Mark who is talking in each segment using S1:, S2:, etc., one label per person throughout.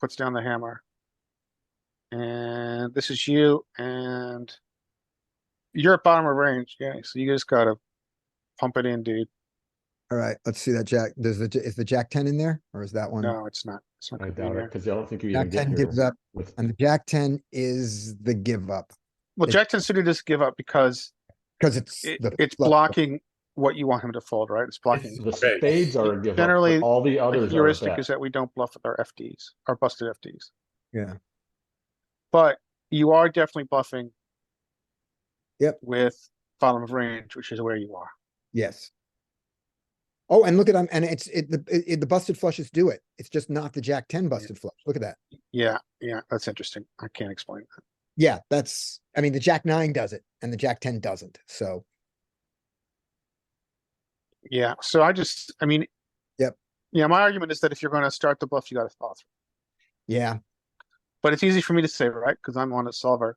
S1: puts down the hammer. And this is you and you're at bottom of range, yeah, so you just gotta pump it in, dude.
S2: Alright, let's see that jack. Does the, j- is the jack ten in there or is that one?
S1: No, it's not. It's not
S3: I
S1: gonna be
S3: doubt it,
S1: there.
S3: because I don't think you
S2: Jack
S3: even get
S2: ten
S3: here
S2: gives up
S3: with,
S2: and the jack ten is the give up
S1: Well,
S2: it-
S1: Jack ten suited does give up because
S2: because it's.
S1: it,
S2: the
S1: it's
S2: flush draw.
S1: blocking what you want him to fold, right? It's blocking.
S3: the spades are a give up,
S1: Generally,
S3: but all the
S1: The
S3: others are a
S1: heuristic
S3: bet.
S1: is that we don't bluff with our FDs, our busted FDs,
S2: Yeah,
S1: but you are definitely bluffing.
S2: Yep.
S1: With bottom of range, which is where you are.
S2: yes. Oh, and look at, um, and it's, it, the, it, it- the busted flushes do it. It's just not the jack ten busted flush. Look at that.
S1: Yeah, yeah, that's interesting. I can't explain that.
S2: Yeah, that's, I mean, the jack nine does it and the jack ten doesn't, so.
S1: Yeah, so I just, I mean.
S2: Yep.
S1: Yeah, my argument is that if you're gonna start the bluff, you gotta follow through.
S2: Yeah,
S1: But it's easy for me to say, right? Cause I'm on a solver.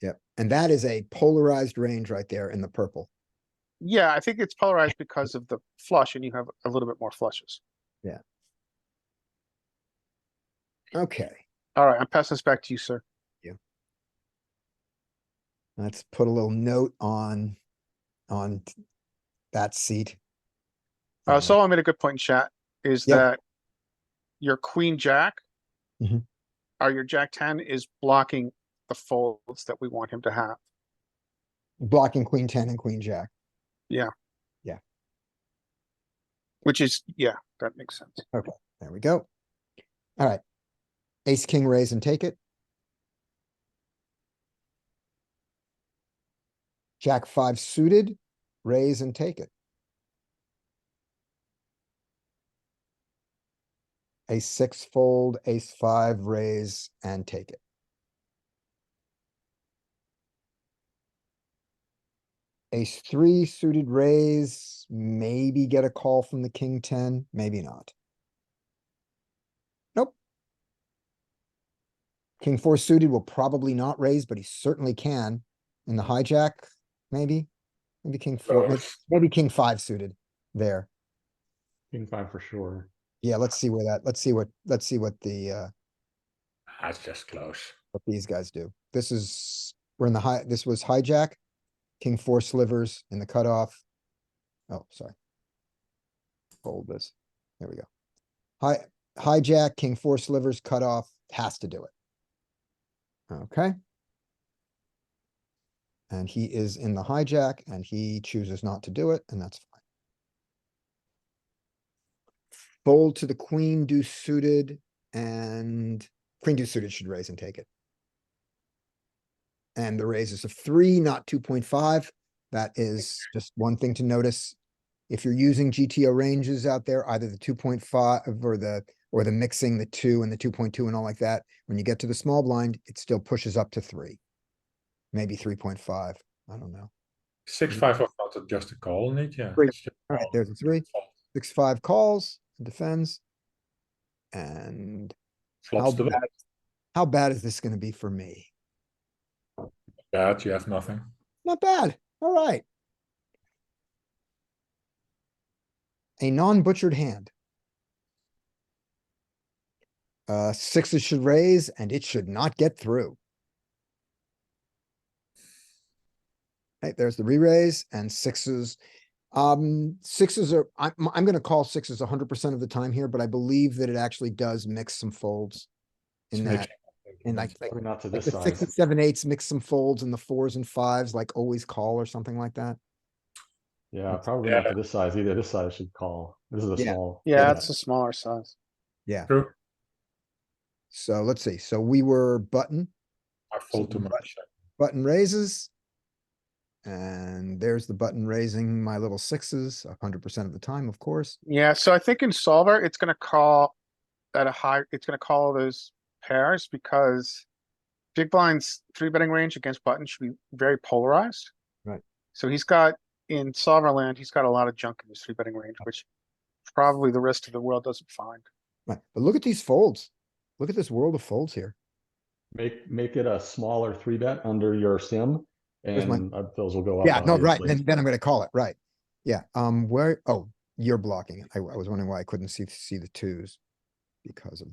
S2: yeah. And that is a polarized range right there in the purple.
S1: Yeah, I think it's polarized because of the flush and you have a little bit more flushes.
S2: Okay,
S1: Alright, I'm passing this back to you, sir.
S2: let's put a little note on, on t- that seat.
S1: Uh, Solo made a good point in chat, is
S2: Yeah.
S1: that your queen jack Mm-hmm.
S2: Mhm.
S1: or your jack ten is blocking the folds that we want him to have.
S2: Blocking queen ten and queen jack.
S1: Which is, yeah, that makes sense.
S2: There we go. Alright. Ace, king, raise and take it. Jack five suited, raise and take it. Ace six fold, ace five, raise and take it. Ace three suited raise, maybe get a call from the king ten, maybe not. King four suited will probably not raise, but he certainly can. In the hijack, maybe, maybe king four, may- maybe king five suited there.
S3: King five for sure.
S2: Yeah, let's see where that, let's see what, let's see what the, uh,
S4: That's just close.
S2: what these guys do. This is, we're in the high, this was hijack, king four slivers in the cutoff. Oh, sorry. Fold this. There we go. Hi, hijack, king four slivers, cutoff, has to do it. Okay. And he is in the hijack and he chooses not to do it, and that's fine. Fold to the queen, do suited, and queen deuce suited should raise and take it. And the raise is a three, not two point five. That is just one thing to notice. If you're using GTO ranges out there, either the two point five or the, or the mixing the two and the two point two and all like that, when you get to the small blind, it still pushes up to three. Maybe three point five. I don't know.
S3: Mm-hmm.
S4: Six, five of not a- just a call, Nick, yeah.
S2: Great.
S4: It's just
S2: All right,
S4: call.
S2: there's a three. Six, five calls, defends. And how
S4: Flops the
S2: bad, how bad is this gonna be for me?
S4: bet, you have nothing.
S2: Not bad. All right. A non-butchered hand. Uh, sixes should raise and it should not get through. Hey, there's the re-raise and sixes. Um, sixes are, I'm, I'm gonna call sixes hundred percent of the time here, but I believe that it actually does mix some folds.
S4: It's
S2: In that,
S4: mixing.
S2: in like, like
S3: Probably not to
S2: like
S3: this
S2: the six and
S3: size.
S2: seven eights mix some folds and the fours and fives, like always call or something like that.
S3: Yeah, probably not
S4: Yeah.
S3: to this size either. This size should call. This is a
S2: Yeah.
S3: small.
S1: Yeah,
S3: bet.
S1: it's a smaller size.
S2: Yeah,
S4: True,
S2: so let's see. So we were button,
S4: I fold too much.
S2: button raises. And there's the button raising my little sixes a hundred percent of the time, of course.
S1: Yeah, so I think in solver, it's gonna call at a high, it's gonna call those pairs because big blind's three betting range against button should be very polarized.
S2: Right.
S1: So he's got, in solver land, he's got a lot of junk in his three betting range, which probably the rest of the world doesn't find.
S2: Right, but look at these folds. Look at this world of folds here.
S3: Make, make it a smaller three bet under your sim
S2: Where's my-
S3: and uh, those will go up.
S2: Yeah, no, right,
S3: obviously.
S2: then, then I'm gonna call it, right. Yeah, um, where, oh, you're blocking it. I, I was wondering why I couldn't see, see the twos because of